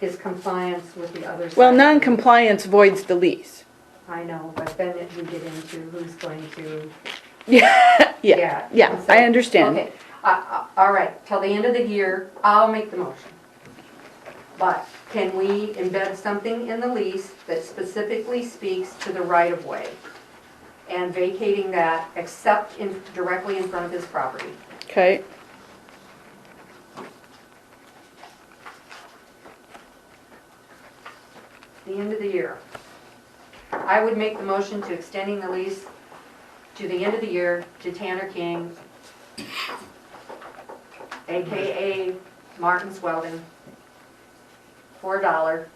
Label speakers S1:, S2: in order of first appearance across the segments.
S1: is compliance with the other side.
S2: Well, non-compliance voids the lease.
S1: I know, but then if you get into who's going to.
S2: Yeah, yeah, yeah, I
S1: so-
S2: understand.
S1: Okay, uh, uh, all right, till the end of the year, I'll make the motion. But can we embed something in the lease that specifically speaks to the right of way? And vacating that except in, directly in front of his property?
S2: Okay,
S1: the end of the year. I would make the motion to extending the lease to the end of the year to Tanner King, AKA Martin Sweldon, for a dollar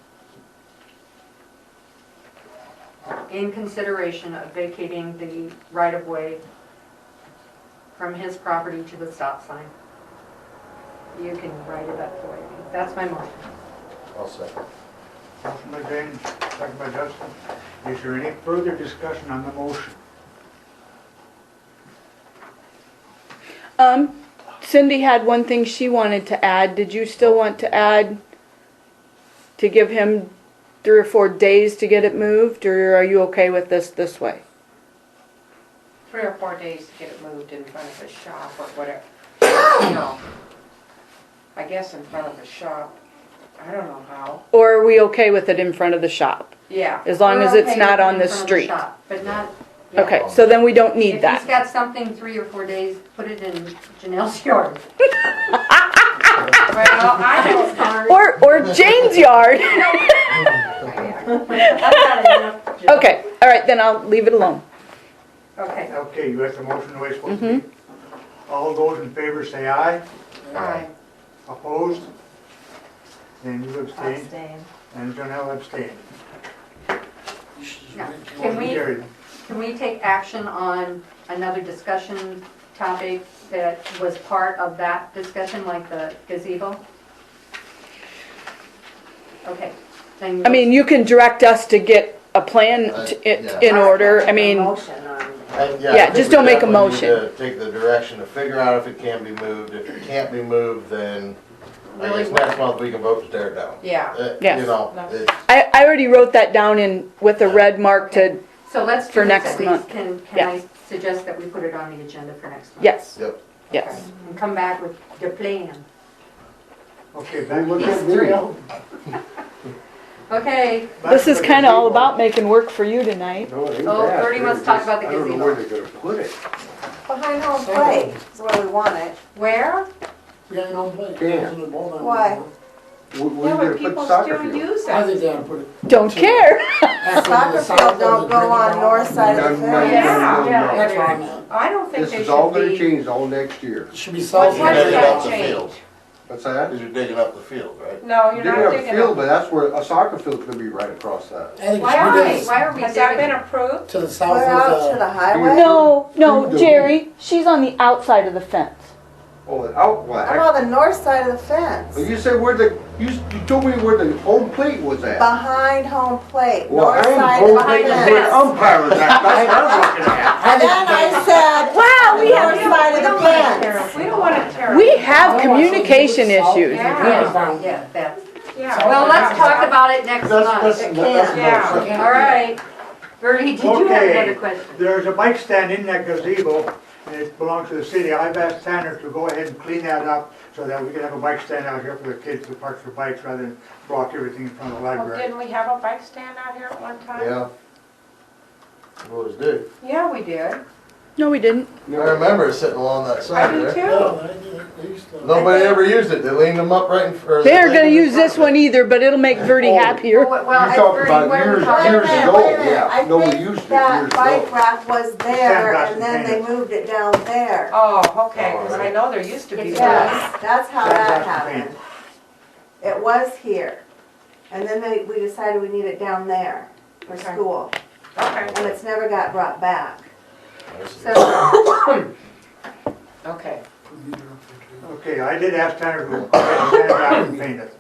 S1: in consideration of vacating the right-of-way from his property to the stop sign. You can write it up for me. That's my motion.
S3: I'll second.
S4: Motion by Jane, second by Justin. Is there any further discussion on the motion?
S2: um, Cindy had one thing she wanted to add. Did you still want to add to give him three or four days to get it moved, or are you okay with this this way?
S5: three or four days to get it moved in front of his shop or whatever, you know. I guess in front of his shop, I don't know how,
S2: Or are we okay with it in front of the shop?
S5: yeah.
S2: As long
S1: We're
S2: as it's
S1: okay
S2: not
S1: with
S2: on
S1: it
S2: the
S1: in front of
S2: street?
S1: shop, But not. yeah.
S2: Okay, so then we don't need
S1: If he's
S2: that.
S1: got something three or four days, put it in Janelle's yard.
S5: Well, I don't,
S2: Or, or Jane's yard.
S1: Okay.
S2: Okay, all right, then I'll leave it alone.
S1: Okay,
S4: Okay, you have the motion the way it's supposed to be. All those in favor say aye.
S5: I,
S4: Opposed? Then you abstain. And Janelle abstain.
S1: now, can
S4: Motion
S1: we,
S4: carried.
S1: can we take action on another discussion topic that was part of that discussion, like the gazebo? Okay, then.
S2: I mean, you can direct us to get a plan
S3: Uh,
S2: t- it-
S3: yeah.
S2: in order, I mean, Yeah, just don't make a motion.
S3: Take the direction to figure out if it can be moved. If it can't be moved, then I
S1: Really?
S3: guess next month we can vote to tear it down.
S5: yeah.
S3: Uh,
S2: Yes.
S3: You know,
S5: No.
S3: it's,
S2: I, I already wrote that down in, with a red mark to,
S1: So let's do
S2: For
S1: this
S2: next
S1: at least.
S2: month.
S1: Can, can
S2: Yeah.
S1: I suggest that we put it on the agenda for next month?
S2: yes,
S3: yep.
S2: yes.
S1: And come back with the plan.
S4: Okay, back to Janelle.
S1: Okay,
S2: This is kinda all about making work for you tonight.
S6: No, it ain't
S1: Oh,
S6: bad.
S1: Bernie wants to talk about the
S6: I don't
S1: gazebo.
S6: know where they're gonna put it.
S7: Behind home plate is where we want it.
S1: where?
S8: Yeah, you don't play.
S6: Yeah.
S7: Why?
S6: Where- Where
S5: Yeah,
S6: are you
S5: but
S6: gonna put
S5: people
S6: soccer
S5: still
S6: field?
S5: use
S8: I think
S5: it.
S8: they ought to put it.
S2: Don't care.
S7: Soccer field don't go on north side
S6: No,
S7: of the
S6: no, no,
S7: fence.
S5: Yeah.
S6: no, no.
S8: That's what I meant.
S5: I don't think
S6: This
S5: they
S6: is all
S5: should
S6: gonna
S5: be.
S6: change all next year.
S8: It should be
S5: What's
S8: south.
S3: You're
S5: Why does
S3: digging
S5: that
S3: up the
S5: change?
S3: field,
S6: What's that?
S3: because you're digging up the field, right?
S5: No,
S6: They
S5: you're
S6: have
S5: not
S6: a
S5: thinking
S6: field,
S5: of,
S6: but that's where, a soccer field's gonna be right across that.
S8: I think it
S5: why
S8: should
S5: are
S8: be
S5: we,
S8: this-
S5: why are we, has that been approved?
S8: to the south
S7: Put it out
S6: uh,
S7: to
S8: of
S7: the
S8: the,
S7: highway.
S2: No, no, Jerry, she's on the outside of the fence.
S6: Oh, the out,
S7: I'm
S6: what?
S7: on the north side of the
S6: But
S7: fence.
S6: you said where the, you, s- you told me where the home plate was at.
S7: Behind home plate,
S6: Well,
S7: north
S6: I
S7: side
S6: am
S7: of
S6: home
S7: the
S6: plate is
S7: fence.
S6: where the umpire was at, that's what I'm looking at.
S7: And then I said, wow, we have north side of the
S5: Oh, We don't wanna tear
S7: fence.
S5: up- We don't wanna tear.
S2: We
S5: up.
S8: Oh,
S2: have communication issues.
S1: Yeah, yeah, that's.
S5: Yeah.
S1: Well, let's talk about it next
S3: That's,
S1: month.
S3: that's, that's.
S5: Yeah.
S3: no-
S1: All right. Bertie, did you have another
S4: Okay,
S1: question?
S4: there's a bike stand in that gazebo, and it belongs to the city. I've asked Tanner to go ahead and clean that up so that we can have a bike stand out here for the kids to park their bikes rather than block everything in front of the
S5: Well,
S4: library.
S5: didn't we have a bike stand out here at one time?
S3: Yeah. What was due.
S5: Yeah, we did.
S2: No, we didn't.
S3: I remember it sitting along that
S5: I
S3: side
S5: do
S3: there.
S5: too.
S8: No, they- they used to-
S3: Nobody ever used it. They leaned them up right in front.
S2: They're gonna use this one either, but it'll make Verdi happier.
S1: Well,
S6: You
S1: well,
S6: talked
S1: Bertie,
S6: about
S1: what are we
S6: years-
S1: talking
S7: Wait a
S6: years
S1: about?
S7: minute,
S6: ago,
S7: wait a minute.
S6: yeah.
S7: I
S6: No, we
S7: think
S6: used it
S7: That
S6: years
S7: bike
S6: ago.
S7: rack was there
S4: got
S7: and then
S4: contained.
S7: they moved it down there.
S5: Oh, okay, 'cause I know there used to be
S1: It's-
S5: one.
S7: Yes, that's how that happened. It was here. And then they, we decided we need it down there for
S5: Okay.
S7: school.
S5: Okay,
S7: And it's never got brought back.
S1: So,
S5: okay.
S4: Okay, I did ask Tanner to go ahead and stand out and paint it.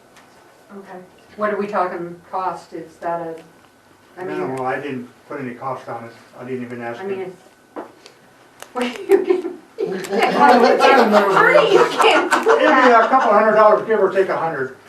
S1: okay. What are we talking cost? Is that a, I mean,
S4: Minimal, I didn't put any cost on it, I didn't even ask
S1: I mean,
S4: him.
S1: it's. What are you getting?
S3: I
S1: Bertie, you can't.
S4: It'd be a couple hundred dollars, give or take a hundred.